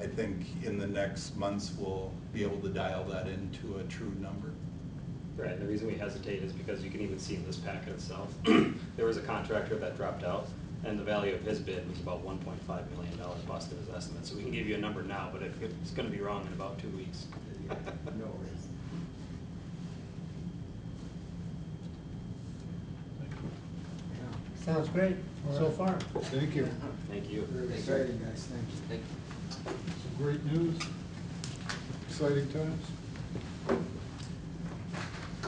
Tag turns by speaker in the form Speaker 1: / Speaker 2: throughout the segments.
Speaker 1: I think in the next months, we'll be able to dial that into a true number.
Speaker 2: Right, and the reason we hesitate is because you can even see in this packet itself, there was a contractor that dropped out, and the value of his bid was about one point five million dollar bust in his estimate, so we can give you a number now, but it- it's gonna be wrong in about two weeks.
Speaker 3: No worries.
Speaker 4: Sounds great so far.
Speaker 5: Thank you.
Speaker 2: Thank you.
Speaker 3: Very exciting, guys, thank you.
Speaker 6: Thank
Speaker 5: Some great news. Exciting times.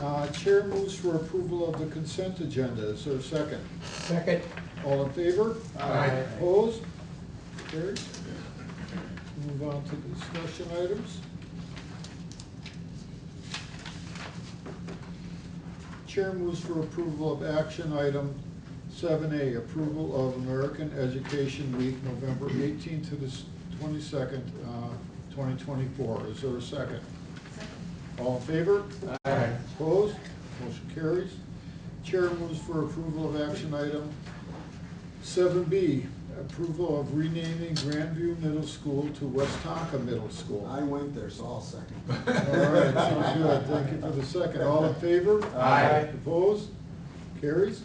Speaker 5: Uh, Chair moves for approval of the consent agenda. Is there a second?
Speaker 4: Second,
Speaker 5: All in favor?
Speaker 3: Aye.
Speaker 5: Opposed? Carried. Move on to discussion items. Chair moves for approval of action item seven A, approval of American Education Week, November eighteenth to the twenty-second, uh, twenty twenty-four. Is there a second? All in favor? Aye. Opposed? Motion carries. Chair moves for approval of action item Seven B, approval of renaming Grandview Middle School to West Tonka Middle School.
Speaker 3: I went there, so I'll second.
Speaker 5: All right, sounds good. Thank you for the second. All in favor?
Speaker 3: Aye.
Speaker 5: Opposed? Carries.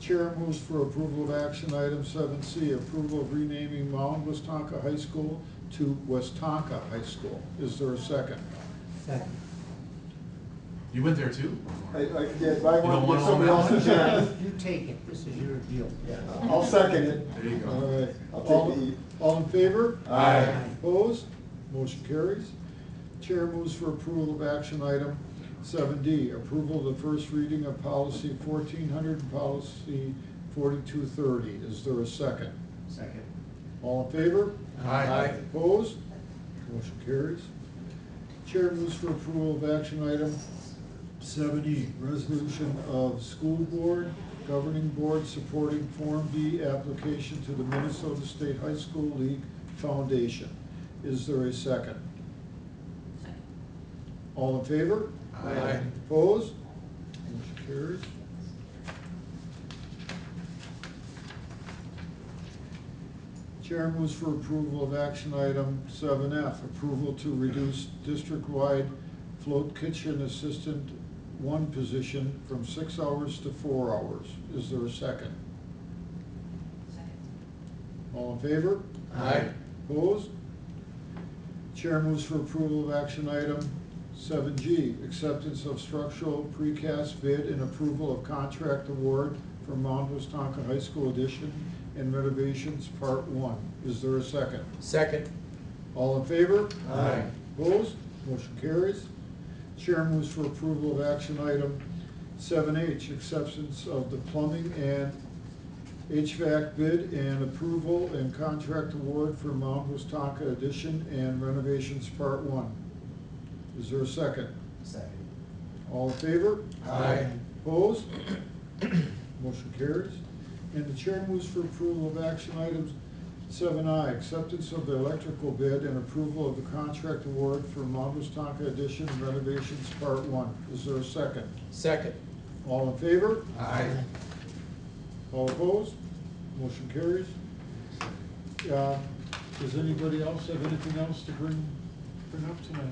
Speaker 5: Chair moves for approval of action item seven C, approval of renaming Mound West Tonka High School to West Tonka High School. Is there a second?
Speaker 4: second.
Speaker 7: You went there too?
Speaker 3: I, I did, but I
Speaker 7: You don't
Speaker 3: want to
Speaker 7: wanna
Speaker 3: give somebody
Speaker 7: own that
Speaker 3: else a
Speaker 7: one?
Speaker 3: chance.
Speaker 4: You take it, this is your deal.
Speaker 3: Yeah, I'll second it.
Speaker 7: There you
Speaker 5: All
Speaker 7: go.
Speaker 5: right.
Speaker 3: I'll take
Speaker 5: All-
Speaker 3: the E.
Speaker 5: All in favor?
Speaker 3: Aye.
Speaker 5: Opposed? Motion carries. Chair moves for approval of action item seven D, approval of the first reading of policy fourteen hundred and policy forty-two thirty. Is there a second?
Speaker 4: Second.
Speaker 5: All in favor?
Speaker 7: Aye.
Speaker 5: Opposed? Motion carries. Chair moves for approval of action item seven E, resolution of school board, governing board supporting Form B application to the Minnesota State High School League Foundation. Is there a second?
Speaker 6: Second.
Speaker 5: All in favor?
Speaker 7: Aye.
Speaker 5: Opposed? Motion carries. Chair moves for approval of action item seven F, approval to reduce district-wide float kitchen assistant one position from six hours to four hours. Is there a second?
Speaker 6: Second.
Speaker 5: All in favor?
Speaker 7: Aye.
Speaker 5: Opposed? Chair moves for approval of action item seven G, acceptance of structural precast bid and approval of contract award for Mount Wisconka High School addition and renovations, part one. Is there a second?
Speaker 4: Second.
Speaker 5: All in favor?
Speaker 7: Aye.
Speaker 5: Opposed? Motion carries. Chair moves for approval of action item seven H, acceptance of the plumbing and HVAC bid and approval and contract award for Mount Wustaka addition and renovations part one. Is there a second?
Speaker 3: Second.
Speaker 5: All in favor?
Speaker 7: Aye.
Speaker 5: Opposed? Motion carries. And the chair moves for approval of action items seven I, acceptance of the electrical bid and approval of the contract award for Mount Wisconka addition and renovations part one. Is there a second?
Speaker 4: Second.
Speaker 5: All in favor?
Speaker 7: Aye.
Speaker 5: All opposed? Motion carries. Uh, Does anybody else have anything else to bring, bring up tonight?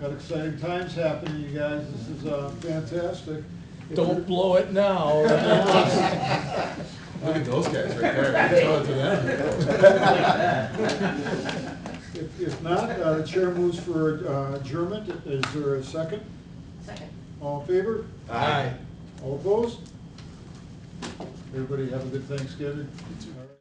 Speaker 5: Got exciting times happening, you guys. This is uh, fantastic. If
Speaker 4: Don't
Speaker 5: you're-
Speaker 4: blow it now.
Speaker 7: Look at those guys right there. Tell it to
Speaker 3: E.
Speaker 7: them.
Speaker 5: If if not, uh, the chair moves for uh, adjournment. Is there a second?
Speaker 6: Second.
Speaker 5: All in favor?
Speaker 4: Aye.
Speaker 5: All opposed? Everybody have a good Thanksgiving. All right.